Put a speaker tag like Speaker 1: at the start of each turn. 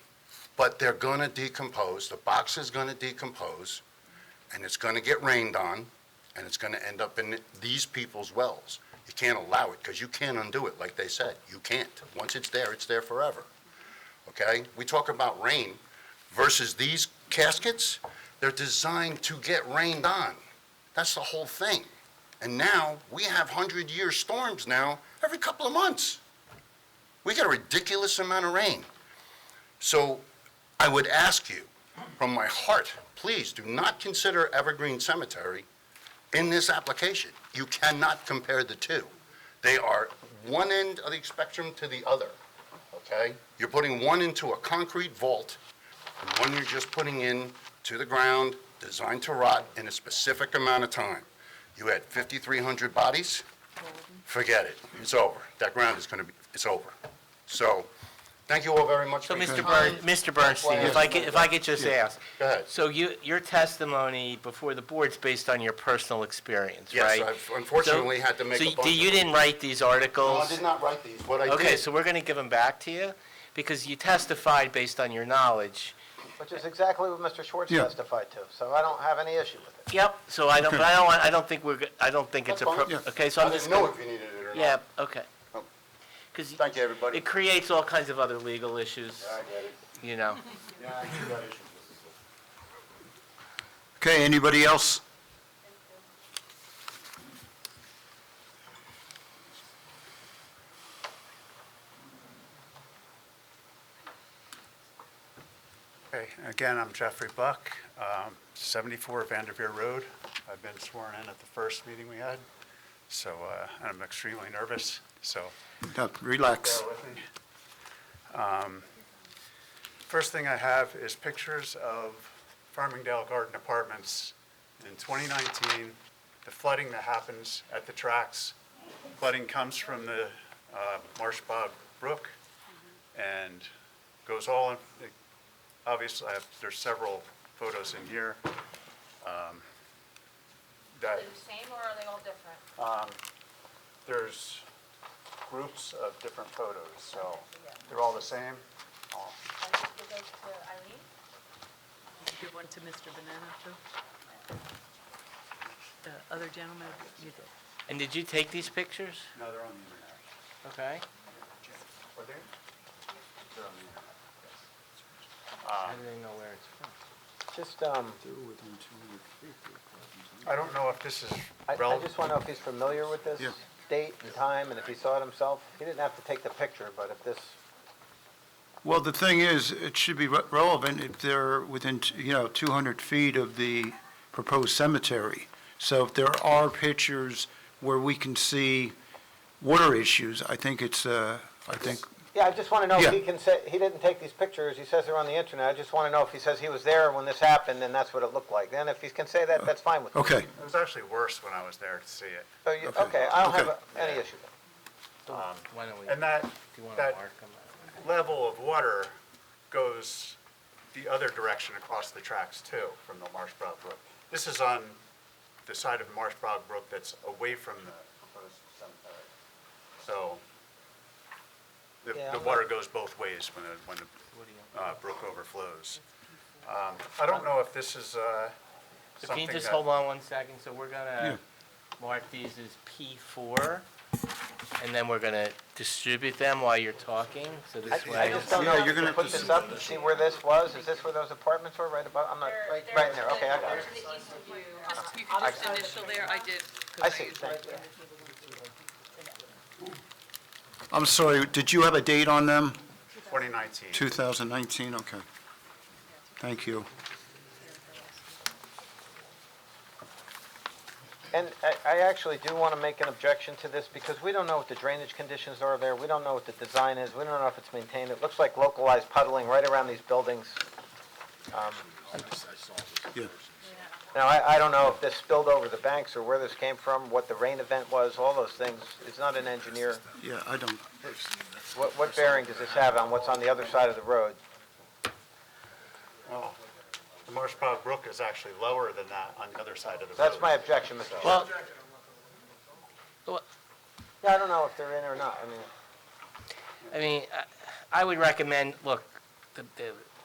Speaker 1: but they're gonna decompose, the box is gonna decompose, and it's gonna get rained on, and it's gonna end up in these people's wells. You can't allow it, because you can't undo it, like they said, you can't. Once it's there, it's there forever, okay? We talk about rain versus these caskets, they're designed to get rained on. That's the whole thing. And now, we have hundred-year storms now, every couple of months. We get a ridiculous amount of rain. So I would ask you, from my heart, please do not consider Evergreen Cemetery in this application. You cannot compare the two. They are one end of the spectrum to the other, okay? You're putting one into a concrete vault, and one you're just putting in to the ground, designed to rot in a specific amount of time. You had 5,300 bodies, forget it, it's over. That ground is going to be, it's over. So, thank you all very much
Speaker 2: So,
Speaker 1: for your
Speaker 2: Mr.
Speaker 1: time.
Speaker 2: Bern, Mr. Bernstein, if I could, if I could just ask,
Speaker 1: Go ahead.
Speaker 2: so you, your testimony before the board's based on your personal experience,
Speaker 1: Yes,
Speaker 2: right?
Speaker 1: I've unfortunately had to make
Speaker 2: So-
Speaker 1: a
Speaker 2: so
Speaker 1: bunch
Speaker 2: you- you
Speaker 1: of-
Speaker 2: didn't write these
Speaker 1: No,
Speaker 2: articles?
Speaker 1: I did not write these. What I
Speaker 2: Okay,
Speaker 1: did,
Speaker 2: so we're going to give them back to you, because you testified based on your knowledge.
Speaker 3: Which is exactly what Mr. Schwartz
Speaker 4: Yeah.
Speaker 3: testified to, so I don't have any issue with it.
Speaker 2: Yep, so I don't, but I don't, want- I don't think we're, go- I don't think it's
Speaker 1: That's fine.
Speaker 2: appropriate. Okay, so
Speaker 1: I
Speaker 2: I'm just.
Speaker 1: didn't know
Speaker 2: gonna-
Speaker 1: if you needed it or not.
Speaker 2: Yeah, okay. Because
Speaker 1: Thank you, everybody.
Speaker 2: it creates all kinds of other legal issues,
Speaker 1: I get it.
Speaker 2: you know?
Speaker 1: Yeah, I do got issues.
Speaker 4: Okay, anybody else?
Speaker 5: Okay, again, I'm Jeffrey Buck, um, 74 Vanderveer Road. I've been sworn in at the first meeting we had, so uh, I'm extremely nervous, so
Speaker 4: No, Relax.
Speaker 5: bear with me. Um, First thing I have is pictures of Farmingdale Garden Apartments in 2019, the flooding that happens at the tracks. Flooding comes from the uh, Marsh Bog Brook and goes all, in- obviously, I have- there's several photos in here. um,
Speaker 6: Are
Speaker 5: That
Speaker 6: they the same or are they all different?
Speaker 5: there's groups of different photos, so they're all the same. Oh,
Speaker 6: I should give those to Eileen.
Speaker 7: Give one to Mr. Banana, too. The other gentleman, you did.
Speaker 2: And did you take these pictures?
Speaker 5: No, they're on the internet.
Speaker 2: Okay.
Speaker 5: Are they? They're on the internet.
Speaker 2: How do they know where it's from?
Speaker 3: Just, um,
Speaker 5: I don't know if this is
Speaker 3: I, I
Speaker 5: relevant.
Speaker 3: just want to know if he's familiar with this
Speaker 4: Yeah.
Speaker 3: date and time, and if he saw it himself. He didn't have to take the picture, but if this,
Speaker 4: Well, the thing is, it should be re- relevant if they're within, t- you know, 200 feet of the proposed cemetery. So if there are pictures where we can see water issues, I think it's, uh, I think,
Speaker 3: yeah, I just want to know
Speaker 4: Yeah.
Speaker 3: if he can say, he didn't take these pictures, he says they're on the internet. I just want to know if he says he was there when this happened, and that's what it looked like. Then if he can say that, that's fine with me.
Speaker 4: okay,
Speaker 5: It was actually worse when I was there to see it.
Speaker 3: So you,
Speaker 4: Okay.
Speaker 3: okay, I don't have
Speaker 4: Okay.
Speaker 3: a- any issue with it.
Speaker 2: Why don't we, do
Speaker 5: And that,
Speaker 2: you want to
Speaker 5: that
Speaker 2: mark them?
Speaker 5: level of water goes the other direction across the tracks too, from the Marsh Bog Brook. This is on the side of Marsh Bog Brook that's away from the proposed cemetery. So the,
Speaker 3: Yeah,
Speaker 5: the
Speaker 3: I'm
Speaker 5: water goes both ways when the, when the, uh, brook overflows. Um, I don't know if this is, uh,
Speaker 2: So can
Speaker 5: something
Speaker 2: you just
Speaker 5: that-
Speaker 2: hold on one second? So we're gonna mark these as P four, and then we're gonna distribute them while you're talking, so this
Speaker 3: I
Speaker 2: way.
Speaker 3: just don't
Speaker 4: Yeah,
Speaker 3: know,
Speaker 4: you're
Speaker 3: you
Speaker 4: gonna
Speaker 3: can
Speaker 4: have
Speaker 3: put
Speaker 4: to
Speaker 3: this up and see where this was, is this where those apartments were, right above, I'm not,
Speaker 6: They're-
Speaker 3: Uh, right,
Speaker 6: they're
Speaker 3: right in there,
Speaker 6: to the-
Speaker 3: okay, I got
Speaker 6: They're
Speaker 3: it.
Speaker 6: to the east of you.
Speaker 7: Just, you can just initial there, I did. 'cause
Speaker 3: I see, thank you.
Speaker 4: I'm sorry, did you have a date on them?
Speaker 5: 2019.
Speaker 4: 2019, okay. Thank you.
Speaker 3: And I, I actually do want to make an objection to this, because we don't know what the drainage conditions are there, we don't know what the design is, we don't know if it's maintained, it looks like localized puddling right around these buildings. Um,
Speaker 4: Yeah.
Speaker 3: Now, I, I don't know if this spilled over the banks, or where this came from, what the rain event was, all those things, it's not an engineer.
Speaker 4: Yeah, I don't,
Speaker 3: What, what bearing does this have on what's on the other side of the road?
Speaker 5: Well, the Marsh Bog Brook is actually lower than that on the other side of the road.
Speaker 3: That's my objection, Mr. Chairman.
Speaker 2: Well,
Speaker 3: Yeah, I don't know if they're in or not, I mean.
Speaker 2: I mean, I- I would recommend, look, the, the